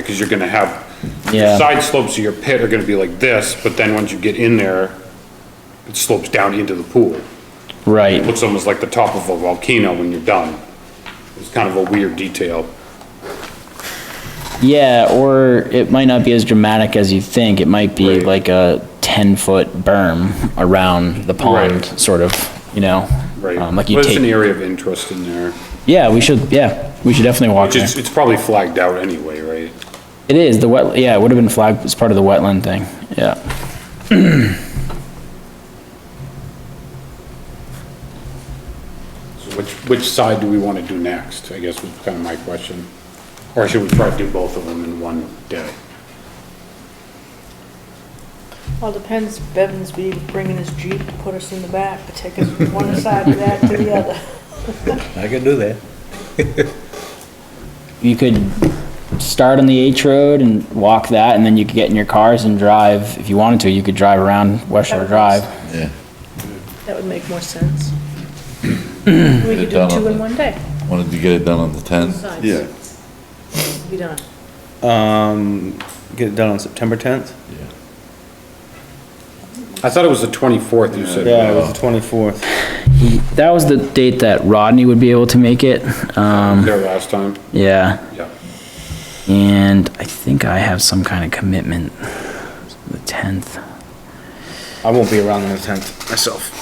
Because you're gonna have, Yeah. the side slopes of your pit are gonna be like this, but then once you get in there, it slopes down into the pool. It Right, Looks almost like the top of a volcano when you're done. It's kind of a weird detail. yeah, or it might not be as dramatic as you think, it might be Right. like a ten-foot berm around the pond, Right. sort of, you know? Right. Um, Like you But it's an take, area of interest in there. yeah, we should, yeah, we should definitely walk Which there. is, it's probably flagged out anyway, right? It is, the wet, yeah, it would have been flagged as part of the wetland thing, yeah. So which, which side do we wanna do next, I guess was kind of my question. Or should we try to do both of them in one day? Well, depends, Bevan's be bringing his Jeep to put us in the back, to take us from one side of that to the other. I can do that. You could start on the H Road and walk that, and then you could get in your cars and drive, if you wanted to, you could drive around West Shore That Drive. was- Yeah, That would make more sense. We could do two in one day, wanted to get it done on the tenth. sides. Yeah, Be done. Um, get it done on September tenth? I thought it was the twenty-fourth you said. Yeah, it was the twenty-fourth. That was the date that Rodney would be able to make it, um, There last time, yeah. yeah. And I think I have some kind of commitment, the 10th. I won't be around on the tenth myself.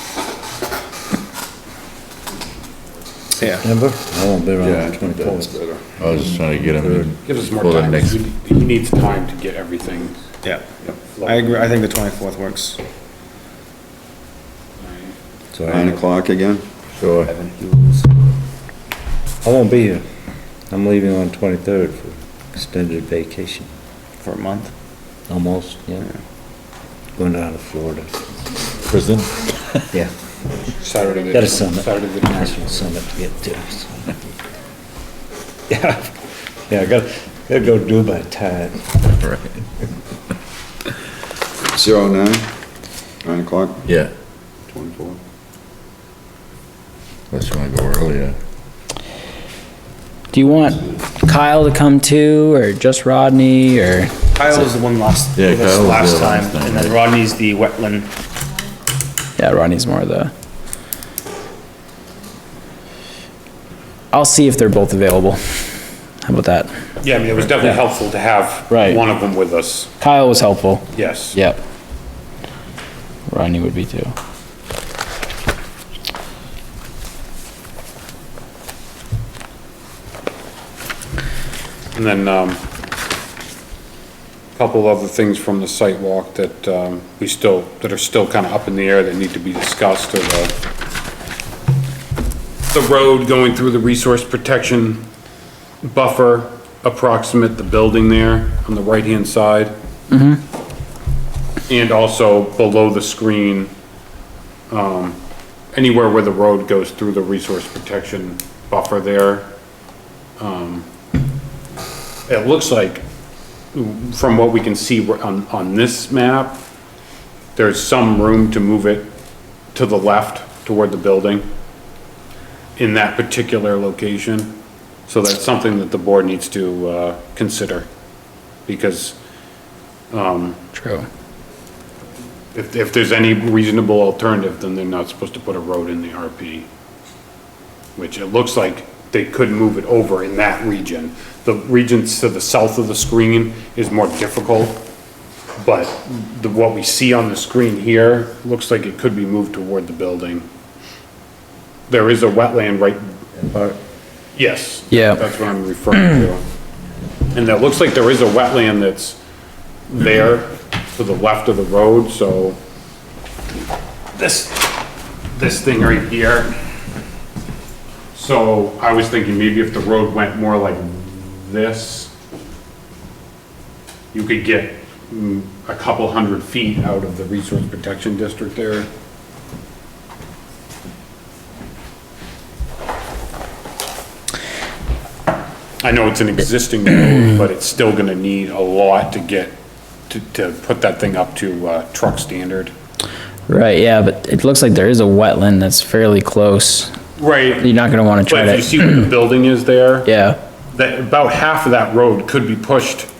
Yeah, Remember? I won't be around yeah, on the that's twenty-fourth. better. I was just trying to get him in. Give us more for the time, next- he he needs time to get everything. yeah. I agree, I think the twenty-fourth works. Nine o'clock again? Sure. I won't be here. I'm leaving on twenty-third for extended vacation, For a month. almost, yeah. Going down to Florida. Prison? Yeah, Saturday. the- got a summit, Saturday the 20th. national summit to get to. so. Yeah, yeah, I gotta, gotta go do my time. Zero nine, nine o'clock, Yeah, twenty-four. unless you wanna go earlier. Do you want Kyle to come too, or just Rodney, or? Kyle was the one last, Yeah, with us Kyle was last there time, last time, and then Rodney's the wetland. Yeah, Rodney's more the. I'll see if they're both available. How about that? Yeah, I mean, it was definitely helpful to have Right. one of them with us, Kyle was helpful. yes. Yep. Rodney would be too. And then, um, couple other things from the site walk that, um, we still, that are still kind of up in the air that need to be discussed or the, the road going through the resource protection buffer approximate the building there on the right-hand side. And also below the screen, um, anywhere where the road goes through the resource protection buffer there. It looks like, from what we can see on, on this map, there's some room to move it to the left toward the building in that particular location. So that's something that the board needs to, uh, consider. Because um, True. if, if there's any reasonable alternative, then they're not supposed to put a road in the RP. Which it looks like they could move it over in that region. The regions to the south of the screen is more difficult, but the, what we see on the screen here looks like it could be moved toward the building. There is a wetland right. uh, Yes. Yeah. That's what I'm referring to. And it looks like there is a wetland that's there to the left of the road, so this, this thing right here. So I was thinking maybe if the road went more like this, you could get mm, a couple hundred feet out of the resource protection district there. I know it's an existing road, but it's still gonna need a lot to get, to, to put that thing up to, uh, truck standard. Right, yeah, but it looks like there is a wetland that's fairly close. You're Right. not gonna wanna try But if you to, see where the building is there, yeah, that, about half of that road could be pushed